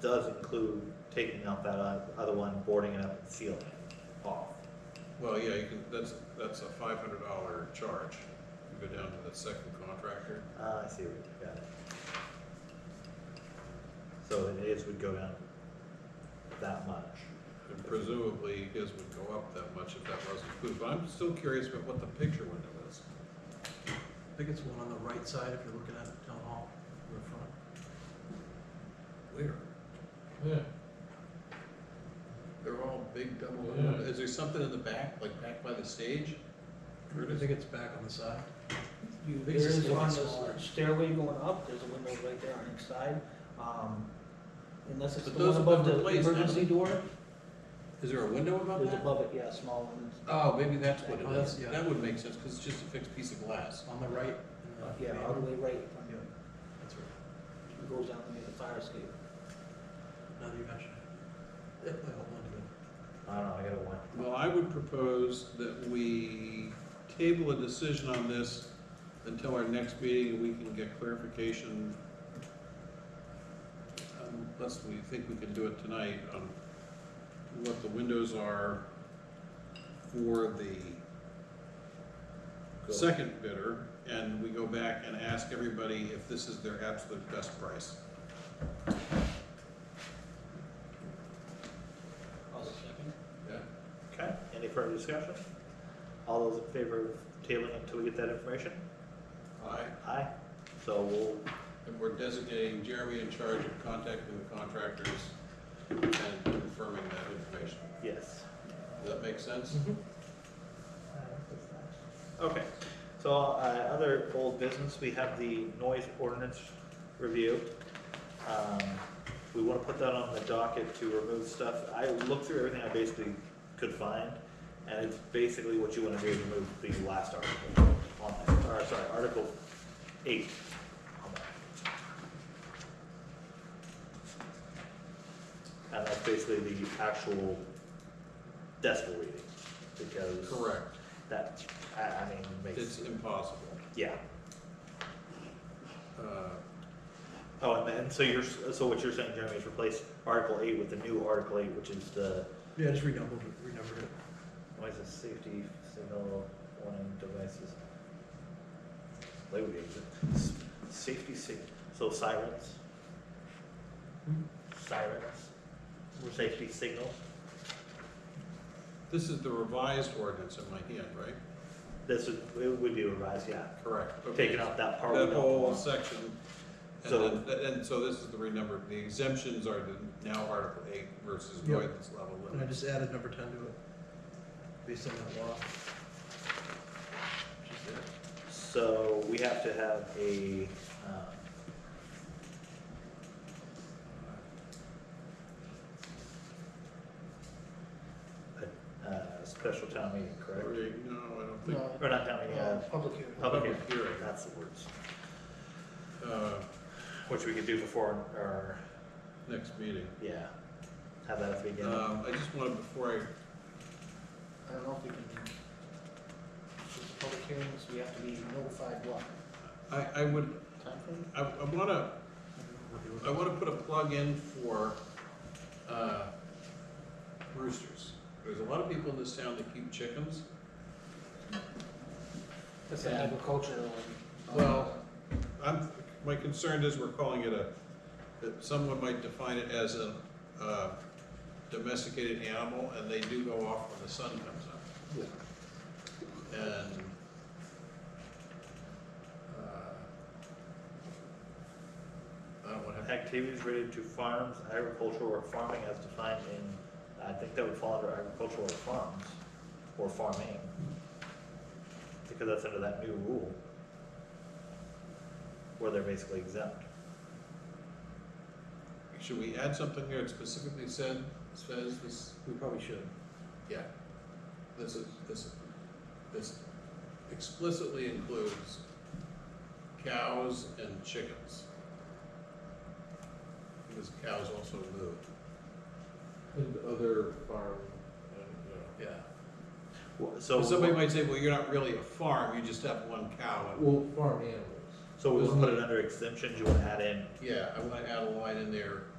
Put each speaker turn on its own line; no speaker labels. does include taking out that oth- other one, boarding it up and sealing it off.
Well, yeah, you can, that's, that's a five hundred dollar charge. You go down to the second contractor.
Ah, I see what you got. it. So it is, would go down that much.
And presumably, you guys would go up that much if that wasn't approved, but I'm still curious about what the picture window is.
I think it's one on the right side if you're looking at town hall, or in
Where?
front.
Yeah. They're all big double,
Yeah.
is there something in the back, like back by the stage? Where
I
does it
think it's back on the side.
You,
I think
there
it's
is
just a lot
on
smaller.
the stairway going up, there's a window right there on each side, um, unless it's
But
the one
those have
above
been
the
replaced now.
emergency door,
Is there a window above
there's
that?
above it, yeah, a small one, it's-
Oh, maybe that's what
Oh,
it
that's-
is.
yeah.
That would make sense, because it's just a fixed piece of glass.
On the right.
uh, yeah, all the way right, from
Yeah,
here.
that's right.
it goes down near the fire escape.
Now that you mention it. Yeah, I hold on to it.
I don't know, I gotta one.
Well, I would propose that we table a decision on this until our next meeting, and we can get clarification. Um, Unless we think we can do it tonight, on what the windows are for the second bidder, and we go back and ask everybody if this is their absolute best price.
I'll second.
Yeah.
Okay, any further discussion? All those in favor of tabling until we get that information?
Aye.
Aye. So we'll,
And we're designating Jeremy in charge of contacting the contractors and confirming that information.
yes.
Does that make sense?
Uh,
Okay, so, uh, other old business, we have the noise ordinance review. Um, we wanna put that on the docket to remove stuff. I looked through everything I basically could find, and it's basically what you wanna do, is remove the last article on that, or, sorry, Article eight. on that. And that's basically the actual decibel reading, because.
Correct.
That, I, I mean,
It's
makes,
impossible.
yeah.
Uh,
Oh, and then, so you're, so what you're saying, Jeremy, is replace Article eight with the new Article eight, which is the,
Yeah, just renumbered, it- renumbered it.
noise and safety signal warning devices? Label names. safety sig, so sirens?
Hmm?
Sirens, safety signal,
This is the revised ordinance in my hand, right?
this would, it would be revised, yeah,
Correct. Okay.
taking out that part. we
That
don't
whole
want.
section.
So-
And then, and so this is the renumbered, the exemptions are the now Article eight versus
Yep.
avoidance level
And I
limit.
just added number ten to it, based on that law. Just there.
So we have to have a, um, a, uh, special town meeting, correct?
Or, No, I don't think.
No,
Or not town meeting, uh,
public hearing.
public
Public
hearing,
hearing.
that's the words,
Uh,
which we could do before our,
next meeting.
yeah, have that at the beginning.
Um, I just wanted, before I
I don't know if we can, with the public hearings, we have to be notified what,
I, I would,
timeframe?
I, I wanna, I wanna put a plug in for, uh, roosters. There's a lot of people in this town that keep chickens.
That's
an
agricultural one.
Well- I'm, my concern is we're calling it a, that someone might define it as a, uh, domesticated animal, and they do go off when the sun comes up.
Yeah.
And, uh, I don't wanna have
Activities related to farms, agricultural or farming as defined in, I think that would fall under agricultural or farms, or farming. Because that's under that new rule. Where they're basically exempt.
Should we add something here that specifically said, says this,
We probably should.
yeah, this is, this, this explicitly includes cows and chickens. Because cows also move,
And other farm, and, uh,
yeah.
Wha- So,
So somebody might say, well, you're not really a farm, you just have one cow. and-"
well, farm animals.
so we'll put it under exemptions, you wanna add in
Yeah, I wanna add a line in there